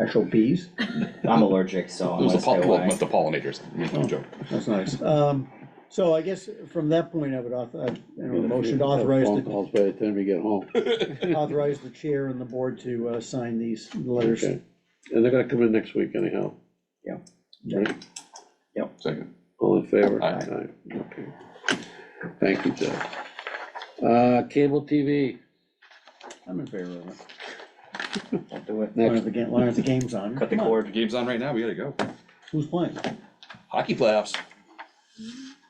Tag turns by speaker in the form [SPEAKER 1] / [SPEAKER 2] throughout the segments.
[SPEAKER 1] actual bees,
[SPEAKER 2] I'm allergic, so
[SPEAKER 3] It
[SPEAKER 2] I'm
[SPEAKER 3] was
[SPEAKER 2] gonna
[SPEAKER 3] the
[SPEAKER 2] stay
[SPEAKER 3] pol- well, it
[SPEAKER 2] away.
[SPEAKER 3] meant the pollinators, I mean, no
[SPEAKER 1] Oh.
[SPEAKER 3] joke.
[SPEAKER 1] that's nice. Um, so I guess from that point, I would auth, I, you know, a motion to authorize,
[SPEAKER 4] Phone
[SPEAKER 1] the
[SPEAKER 4] calls by the time we get home.
[SPEAKER 1] authorize the chair and the board to, uh, sign these letters.
[SPEAKER 4] Okay. And they're gonna come in next week anyhow.
[SPEAKER 2] Yeah.
[SPEAKER 4] Right?
[SPEAKER 3] Second.
[SPEAKER 4] All in favor?
[SPEAKER 3] Aye.
[SPEAKER 4] Aye, okay. Thank you, Jeff. Uh, cable TV,
[SPEAKER 1] I'm in favor of it,
[SPEAKER 2] Don't do it.
[SPEAKER 1] long as
[SPEAKER 4] next,
[SPEAKER 1] the game, long as the game's on.
[SPEAKER 2] Cut the
[SPEAKER 1] Come on,
[SPEAKER 2] cord.
[SPEAKER 3] Game's on right now, we gotta go.
[SPEAKER 1] Who's playing?
[SPEAKER 3] Hockey playoffs.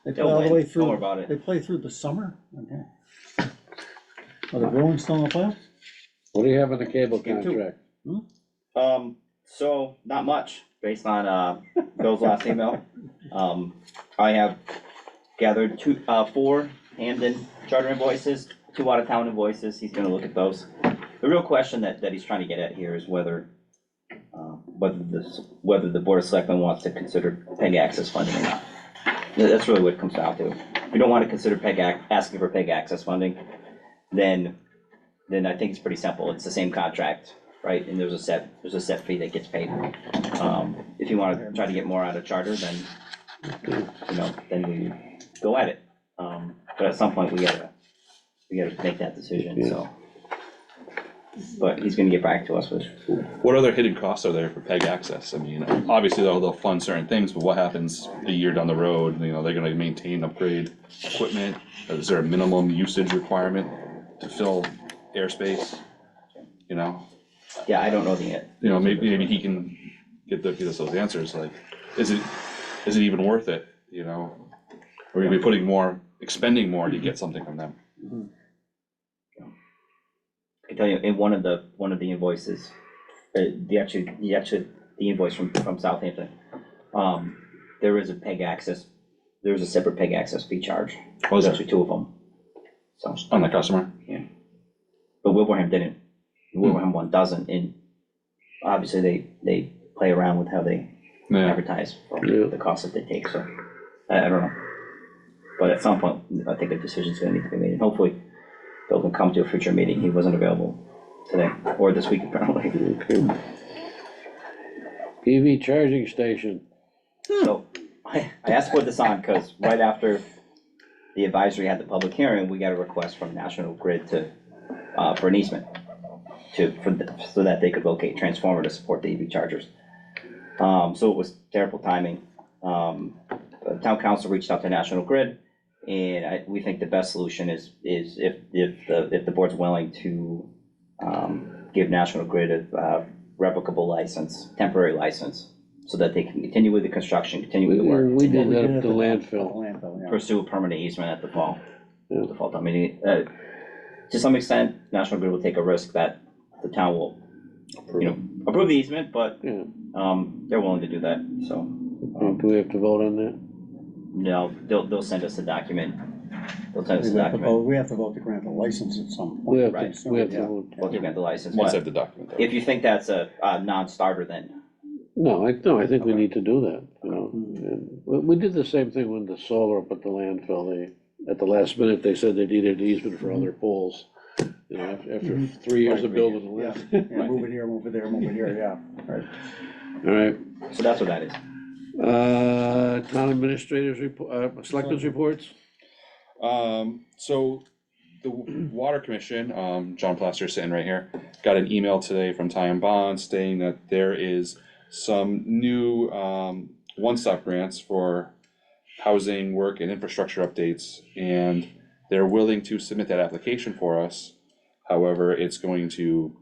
[SPEAKER 1] They play
[SPEAKER 2] They'll
[SPEAKER 1] all the
[SPEAKER 2] win.
[SPEAKER 1] way
[SPEAKER 2] Don't
[SPEAKER 1] through.
[SPEAKER 2] worry about it.
[SPEAKER 1] They play through the summer? Okay. Are the Bruins still in the playoffs?
[SPEAKER 4] what do you have on the cable
[SPEAKER 2] Game two.
[SPEAKER 4] contract?
[SPEAKER 2] Um, so, not much, based on, uh, Bill's last email. Um, I have gathered two, uh, four Hamden charter invoices, two out-of-town invoices, he's gonna look at those. The real question that, that he's trying to get at here is whether, uh, whether this, whether the Board of Selectmen wants to consider PEG access funding or not. That- That's really what it comes down to. If you don't wanna consider PEG ac, asking for PEG access funding, then, then I think it's pretty simple, it's the same contract, right? And there's a set, there's a set fee that gets paid. Um, if you wanna try to get more out of charter, then you know, then we go at it. Um, but at some point, we gotta, we gotta make that decision, so. But he's gonna get back to us with,
[SPEAKER 3] What other hidden costs are there for PEG access? I mean, obviously, they'll, they'll fund certain things, but what happens a year down the road? You know, they're gonna maintain, upgrade equipment, is there a minimum usage requirement to fill airspace? You know,
[SPEAKER 2] yeah, I don't know the, an-
[SPEAKER 3] you know, maybe, maybe he can get the, get us those answers, like, is it, is it even worth it, you know? Or are we putting more, expending more to get something from them?
[SPEAKER 2] I can tell you, in one of the, one of the invoices, uh, the actual, the actual, the invoice from, from Southampton, um, there is a peg access, there is a separate peg access fee charge.
[SPEAKER 3] Oh,
[SPEAKER 2] There's
[SPEAKER 3] is there?
[SPEAKER 2] actually two of them. So,
[SPEAKER 3] On the customer?
[SPEAKER 2] but Wilbraham didn't. Wilbraham one doesn't, and obviously, they, they play around with how they
[SPEAKER 3] Yeah,
[SPEAKER 2] advertise for
[SPEAKER 4] Yeah.
[SPEAKER 2] the cost that they take, so, I, I don't know. But at some point, I think a decision's gonna need to be made, and hopefully, Bill can come to a future meeting, he wasn't available today, or this week apparently,
[SPEAKER 4] Okay. EV charging station,
[SPEAKER 2] so, I, I asked for this on, cause right after the advisory had the public hearing, we got a request from National Grid to, uh, for an easement to, for, the- so that they could locate transformer to support the EV chargers. Um, so it was terrible timing. Um, the town council reached out to National Grid, and I, we think the best solution is, is if, if, the if the board's willing to, um, give National Grid a, uh, replicable license, temporary license, so that they can continue with the construction, continue with the work.
[SPEAKER 4] we
[SPEAKER 1] Well,
[SPEAKER 4] did that
[SPEAKER 1] it
[SPEAKER 4] at the
[SPEAKER 1] at
[SPEAKER 4] landfill.
[SPEAKER 1] the landfill, yeah.
[SPEAKER 2] Pursue a permanent easement at the fall,
[SPEAKER 4] Yeah.
[SPEAKER 2] the fall, I mean, uh, to some extent, National Grid will take a risk that the town will, you know, approve the easement, but,
[SPEAKER 4] Yeah,
[SPEAKER 2] um, they're willing to do that, so.
[SPEAKER 1] Um,
[SPEAKER 4] do we have to vote on that?
[SPEAKER 2] No, they'll, they'll send us a document. They'll send us a
[SPEAKER 1] We have to
[SPEAKER 2] document,
[SPEAKER 1] vote, we have to vote to grant the license at some point.
[SPEAKER 4] We have
[SPEAKER 2] Right,
[SPEAKER 4] to, we have to
[SPEAKER 1] yeah.
[SPEAKER 4] vote.
[SPEAKER 2] we'll grant the license,
[SPEAKER 3] once I
[SPEAKER 2] but
[SPEAKER 3] have the document. though.
[SPEAKER 2] if you think that's a, a non-starter, then,
[SPEAKER 4] No, I, no, I think we need to do that, you know, and we, we did the same thing with the solar up at the landfill, they, at the last minute, they said they needed an easement for all their poles. You know, af- after three years of building the
[SPEAKER 1] Yeah,
[SPEAKER 4] land,
[SPEAKER 1] yeah, move it here, move it there, move it here, yeah, right.
[SPEAKER 4] all right,
[SPEAKER 2] so that's what that is.
[SPEAKER 4] uh, town administrators report, uh, selectmen's reports?
[SPEAKER 3] Um, so the w- water commission, um, John Plaster sitting right here, got an email today from Ty and Bond stating that there is some new, um, one-stop grants for housing, work and infrastructure updates. And they're willing to submit that application for us. However, it's going to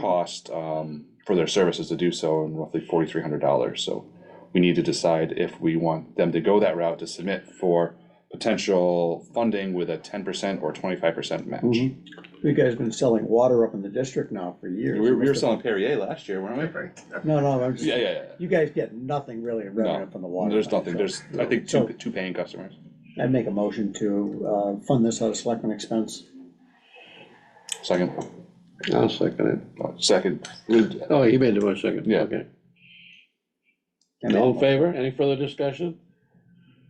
[SPEAKER 3] cost, um, for their services to do so in roughly forty-three hundred dollars. So we need to decide if we want them to go that route to submit for potential funding with a ten percent or twenty-five percent match.
[SPEAKER 1] You guys been selling water up in the district now for years.
[SPEAKER 3] We were, we were selling Perrier last year, weren't
[SPEAKER 1] No, no, I'm
[SPEAKER 3] we? Yeah,
[SPEAKER 1] just,
[SPEAKER 3] yeah,
[SPEAKER 1] you guys get nothing really in revenue from the
[SPEAKER 3] yeah.
[SPEAKER 1] water.
[SPEAKER 3] There's
[SPEAKER 1] line,
[SPEAKER 3] nothing,
[SPEAKER 1] so
[SPEAKER 3] there's, I think,
[SPEAKER 1] So-
[SPEAKER 3] two, two paying customers.
[SPEAKER 1] I'd make a motion to, uh, fund this out of selectmen expense.
[SPEAKER 3] Second,
[SPEAKER 4] I'll second
[SPEAKER 3] uh, second,
[SPEAKER 4] it, oh, he made the motion second,
[SPEAKER 3] Yeah.
[SPEAKER 4] okay,
[SPEAKER 1] And
[SPEAKER 4] all in
[SPEAKER 1] then-
[SPEAKER 4] favor, any further discussion,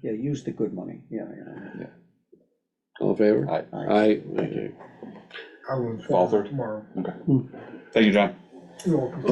[SPEAKER 1] Yeah, use the good money, yeah, yeah.
[SPEAKER 4] all in favor?
[SPEAKER 3] Aye.
[SPEAKER 1] Aye.
[SPEAKER 4] Aye, okay.
[SPEAKER 5] I will
[SPEAKER 3] Fall
[SPEAKER 5] inform
[SPEAKER 3] through.
[SPEAKER 5] tomorrow.
[SPEAKER 3] thank you, John.
[SPEAKER 5] You're welcome.